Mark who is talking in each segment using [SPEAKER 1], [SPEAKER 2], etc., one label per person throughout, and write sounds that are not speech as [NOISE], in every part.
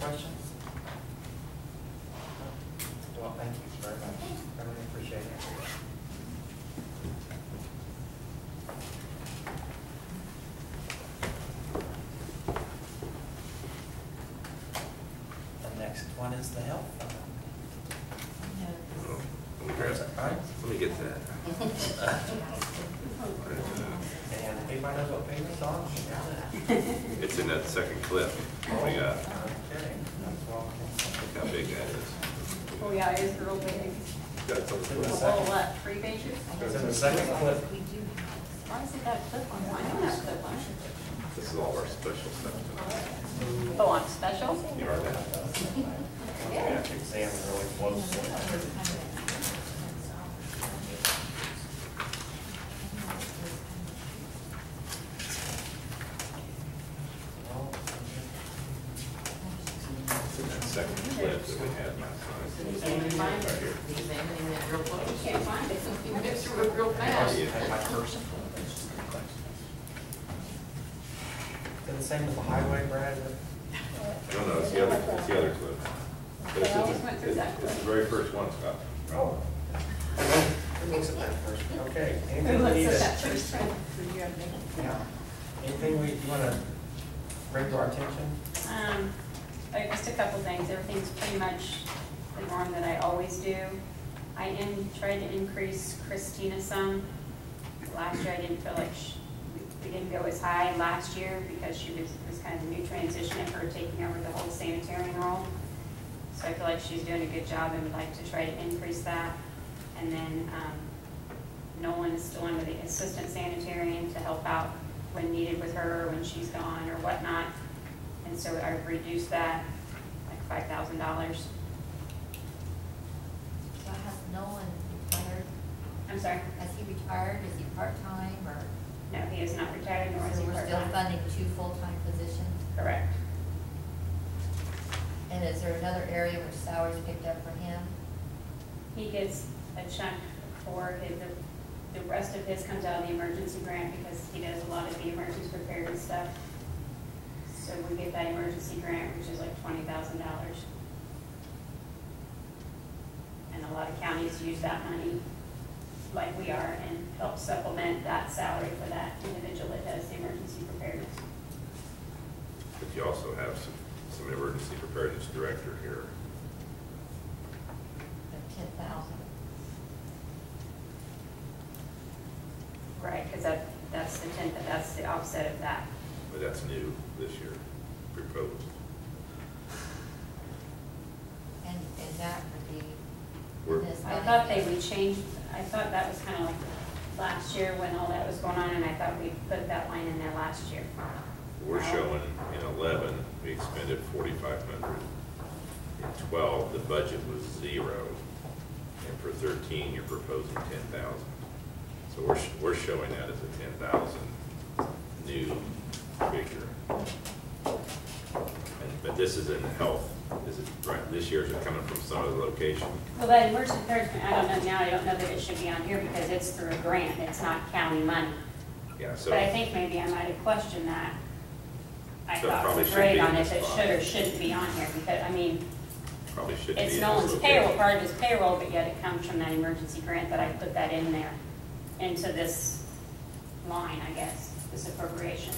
[SPEAKER 1] questions? Well, thank you very much. I really appreciate it. The next one is the health. Where's it, right?
[SPEAKER 2] Let me get that.
[SPEAKER 3] [LAUGHS]
[SPEAKER 1] And we might as well pay this off.
[SPEAKER 2] It's in that second clip.
[SPEAKER 1] Oh,
[SPEAKER 2] We got,
[SPEAKER 1] Okay, that's all.
[SPEAKER 2] look how big that is.
[SPEAKER 3] Oh, yeah, it is real big.
[SPEAKER 2] Got something.
[SPEAKER 1] The
[SPEAKER 3] A
[SPEAKER 1] second.
[SPEAKER 3] whole lot, three pages?
[SPEAKER 1] Is it the second clip?
[SPEAKER 3] Why is it got a clip on? I don't have a clip on.
[SPEAKER 2] This is all of our special stuff.
[SPEAKER 3] Oh, on special?
[SPEAKER 2] You are that.
[SPEAKER 1] Yeah, exam really close.
[SPEAKER 2] It's in that second clip that we had last time.
[SPEAKER 4] Examining that
[SPEAKER 2] Right here.
[SPEAKER 4] real close.
[SPEAKER 3] Can't find it.
[SPEAKER 4] You mixed it with real fast.
[SPEAKER 2] Yeah.
[SPEAKER 1] Had my first. Did the same with the highway, Brad?
[SPEAKER 2] No, no, it's the other, it's the other clip. But it's
[SPEAKER 3] I always went through
[SPEAKER 2] in-
[SPEAKER 3] that
[SPEAKER 2] It's the very first one, Scott.
[SPEAKER 1] Oh. Who looks at that first? Okay.
[SPEAKER 3] Who
[SPEAKER 1] anything we need
[SPEAKER 3] looks
[SPEAKER 1] to-
[SPEAKER 3] at that first print?
[SPEAKER 1] Yeah. Anything we, you wanna bring to our attention?
[SPEAKER 3] Um, uh, just a couple things, everything's pretty much the norm that I always do. I am, tried to increase Christina some. Last year, I didn't feel like sh we didn't go as high last year because she was, it was kind of a new transition of her taking over the whole sanitarian role. So I feel like she's doing a good job and would like to try to increase that. And then, um, Nolan is still under the assistant sanitarian to help out when needed with her, when she's gone or whatnot. And so I reduced that, like five thousand dollars.
[SPEAKER 4] So has Nolan retired?
[SPEAKER 3] I'm sorry,
[SPEAKER 4] Has he retired? Is he part-time or?
[SPEAKER 3] no, he is not retired, nor is
[SPEAKER 4] So
[SPEAKER 3] he
[SPEAKER 4] we're still
[SPEAKER 3] part-time.
[SPEAKER 4] funding two full-time positions?
[SPEAKER 3] Correct.
[SPEAKER 4] And is there another area where salaries picked up for him?
[SPEAKER 3] He gets a chunk for his, the, the rest of his comes out of the emergency grant because he does a lot of the emergency preparedness stuff. So we get that emergency grant, which is like twenty thousand dollars. And a lot of counties use that money, like we are, and help supplement that salary for that individual that does the emergency preparedness.
[SPEAKER 2] But you also have some, some emergency preparedness director here.
[SPEAKER 4] Of ten thousand?
[SPEAKER 3] Right, because that, that's the tenth, that's the offset of that.
[SPEAKER 2] But that's new this year, proposed.
[SPEAKER 4] And, and that would be.
[SPEAKER 2] We're-
[SPEAKER 4] this
[SPEAKER 3] I thought they
[SPEAKER 4] money.
[SPEAKER 3] would change, I thought that was kind of like last year when all that was going on, and I thought we put that line in there last year.
[SPEAKER 2] We're showing in eleven, we expended forty-five hundred. In twelve, the budget was zero. And for thirteen, you're proposing ten thousand. So we're, sh- we're showing that as a ten thousand new figure. And, but this is in health, this is, right, this year's are coming from some other location.
[SPEAKER 3] Well, that emergency preparedness, I don't know now, I don't know that it should be on here because it's through a grant, it's not county money.
[SPEAKER 2] Yeah, so.
[SPEAKER 3] But I think maybe I might have questioned that. I
[SPEAKER 2] So it
[SPEAKER 3] thought
[SPEAKER 2] probably
[SPEAKER 3] it
[SPEAKER 2] should
[SPEAKER 3] was
[SPEAKER 2] be
[SPEAKER 3] great
[SPEAKER 2] in
[SPEAKER 3] on
[SPEAKER 2] this
[SPEAKER 3] if it
[SPEAKER 2] box.
[SPEAKER 3] should or shouldn't be on here, because, I mean,
[SPEAKER 2] Probably should be.
[SPEAKER 3] It's
[SPEAKER 2] in
[SPEAKER 3] no
[SPEAKER 2] this
[SPEAKER 3] one's
[SPEAKER 2] location.
[SPEAKER 3] payroll, part of his payroll, but yet it comes from that emergency grant that I put that in there, into this line, I guess, this appropriation.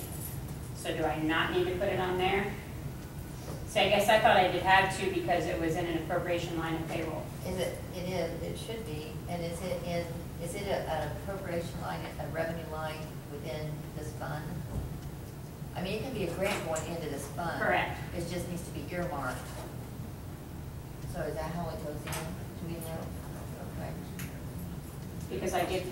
[SPEAKER 3] So do I not need to put it on there? See, I guess I thought I did have to because it was in an appropriation line of payroll.
[SPEAKER 4] Is it, it is, it should be, and is it in, is it a- an appropriation line, a revenue line within this fund? I mean, it can be a grant going into this fund.
[SPEAKER 3] Correct.
[SPEAKER 4] It just needs to be earmarked. So is that how it goes in? Do we know? Okay.
[SPEAKER 3] Because I get,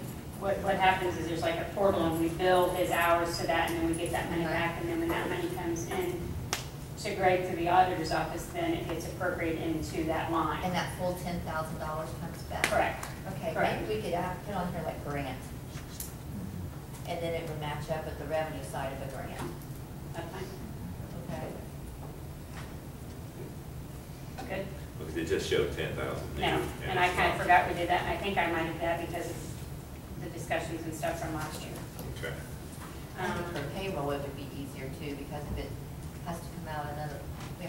[SPEAKER 3] what, what happens is there's like a portal and we bill his hours to that and then we get that money back. And then when that money comes in to Greg through the auditor's office, then it gets appropriated into that
[SPEAKER 4] And
[SPEAKER 3] line.
[SPEAKER 4] that full ten thousand dollars comes back?
[SPEAKER 3] Correct.
[SPEAKER 4] Okay,
[SPEAKER 3] Correct.
[SPEAKER 4] maybe we could add, put on here like grant. And then it would match up with the revenue side of a grant.
[SPEAKER 3] That's fine.
[SPEAKER 4] Okay.
[SPEAKER 3] Good?
[SPEAKER 2] Look, They just showed ten thousand.
[SPEAKER 3] No, and I kind of forgot we did that, and I think I might have that because of the discussions and stuff from last year.
[SPEAKER 2] Okay.
[SPEAKER 4] I think
[SPEAKER 3] Um,
[SPEAKER 4] for payroll, it would be easier too, because if it has to come out another,